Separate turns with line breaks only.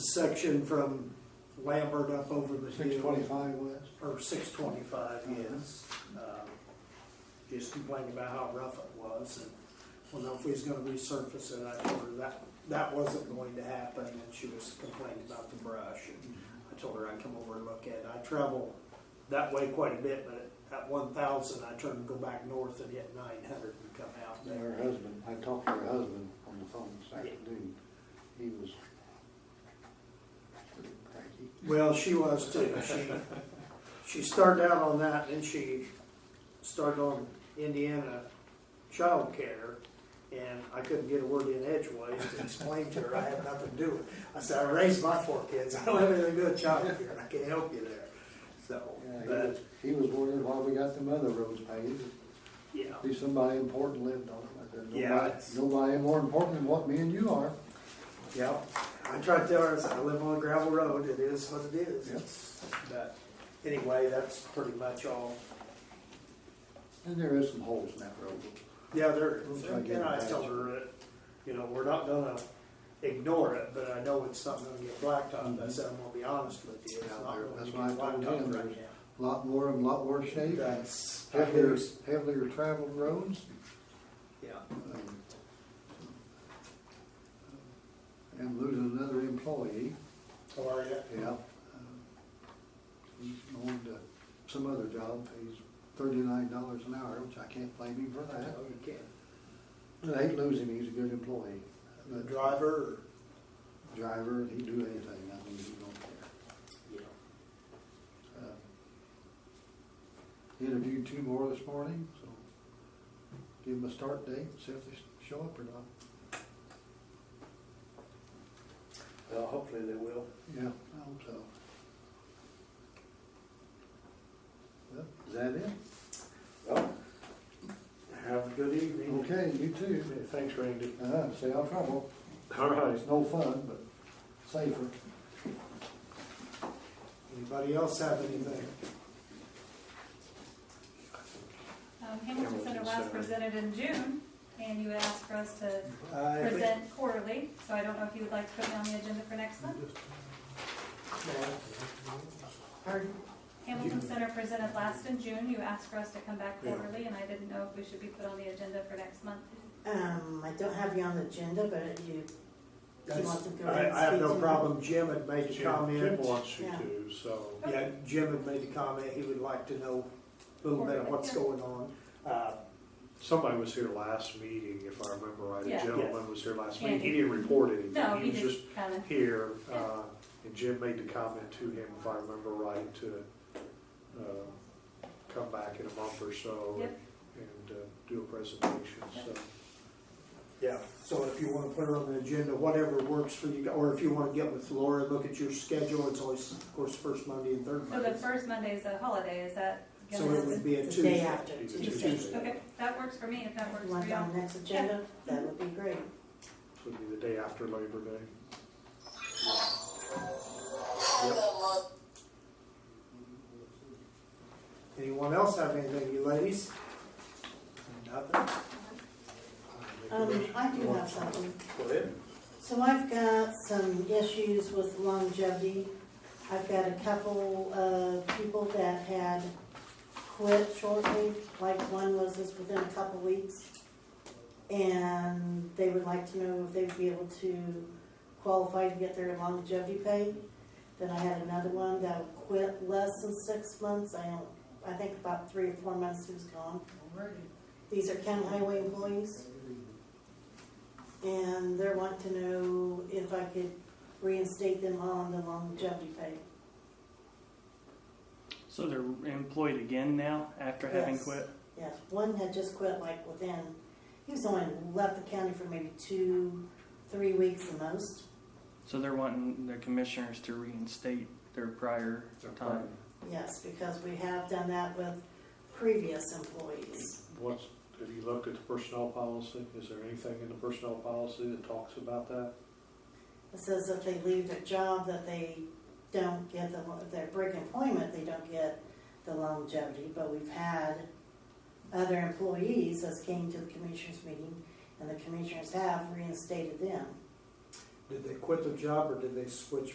section from Lambert up over the hill.
Six twenty-five Uh-huh. west.
Or six twenty-five, yes. Um, Just complaining about how rough it was and, well, no, if he's gonna resurface it, I told her that, that wasn't going to happen and she was complaining about the brush. and I told her I'd come over and look at it. I travel that way quite a bit, but at one thousand, I turn and go back north and hit nine hundred and come out
And
there.
Her husband, I talked to her husband on the phone this afternoon. He was pretty cranky.
Well, she was too. She, she started out on that, then she started on Indiana childcare, and I couldn't get a word in edgeways to explain to her I had nothing to do with it. I said, I raised my four kids, I don't have anything to do with childcare, I can't help you there. So,
Yeah, he was,
but,
he was worried why we got them other roads paved.
yeah,
Be somebody important lived on them. I said,
Yeah,
"Nobody-
it's-
Nobody more important than what me and you are.
yeah. I tried to tell her, I said, I live on a gravel road, it is what it is.
Yep.
But anyway, that's pretty much all.
And there is some holes in that road.
Yeah, there,
We'll try to get
and I
it back.
tell her that, you know, we're not gonna ignore it, but I know it's something gonna get blacktopped, I said, I'm gonna be honest with you, it's
Yeah,
not
there-
gonna
that's
get
why I told him
blacktopped right
there's- Lot more and lot worse
now.
shape.
That's, I
Heavier,
hear-
heavier traveled roads.
yeah,
um, And losing another employee.
how Oh, are you?
Yeah. He's going to some other job, pays thirty-nine dollars an hour, which I can't blame him for
I
that.
know Oh, you can,
But I hate losing him, he's a good employee.
the
But
driver, or,
Driver, he'd do anything, I mean, he don't care.
you know,
Uh, Interviewed two more this morning, so give him a start date, see if they show up or not.
well, hopefully they will.
Yeah, I hope so. Well, Is that it?
Well, have a good evening.
Okay, you too.
Thanks, Randy.
Uh, stay out of trouble.
All right.
It's no fun, but safer.
Anybody else have anything?
Um, Hamilton Center
Hamilton Center.
last presented in June, and you asked for us to
I think-
present quarterly, so I don't know if you would like to put me on the agenda for next month.
Pardon?
Hamilton Center presented last in June, you asked for us to come back quarterly, and I didn't know if we should be put on the agenda for next month.
Um, I don't have you on the agenda, but you, do you want to go ahead
I,
and
I have
speak
no
to-
problem, Jim had made a
Jim Jim
comment,
wants you
Yeah.
to, so.
Yeah, Jim had made a comment, he would like to know a little bit of what's going on. Uh,
Somebody was here last meeting, if I remember right, a
Yeah.
gentleman was here last meeting. He
Andy.
didn't report
No,
anything.
he
He was just
just kind of,
here,
Yeah.
uh, and Jim made the comment to him, if I remember right, to, uh, come back in a month or so
Yep.
and, uh, do a presentation, so.
Yeah, so if you wanna put it on the agenda, whatever works for you, or if you wanna get with Laura, look at your schedule, it's always, of course, first Monday and third
so the
Monday.
first Monday is a holiday, is that?
So it would be a
the day
Tuesday.
after,
It's a
Tuesday.
Tuesday.
Okay, that works for me, if that works
You
for
Want
you.
it on the next agenda? That would be great.
This would be the day after Labor Day.
Anyone else have anything, you ladies? Nothing?
Um, I do have something.
Go ahead.
So I've got some issues with longevity. I've got a couple of people that had quit shortly, like one was just within a couple weeks. And they would like to know if they would be able to qualify to get their longevity pay. Then I had another one that quit less than six months, I don't, I think about three or four months he was gone. These are county highway employees. And they're wanting to know if I could reinstate them on the longevity pay.
So they're employed again now after having
Yes.
quit?
Yes, one had just quit like within, he was only left the county for maybe two, three weeks the most.
So they're wanting the commissioners to reinstate their prior time.
Yes, because we have done that with previous employees.
What's, have you looked at the personnel policy? Is there anything in the personnel policy that talks about that?
It says if they leave their job, that they don't get the, if they break employment, they don't get the longevity. But we've had other employees that came to the commissioners meeting, and the commissioners have reinstated them.
Did they quit the job or did they switch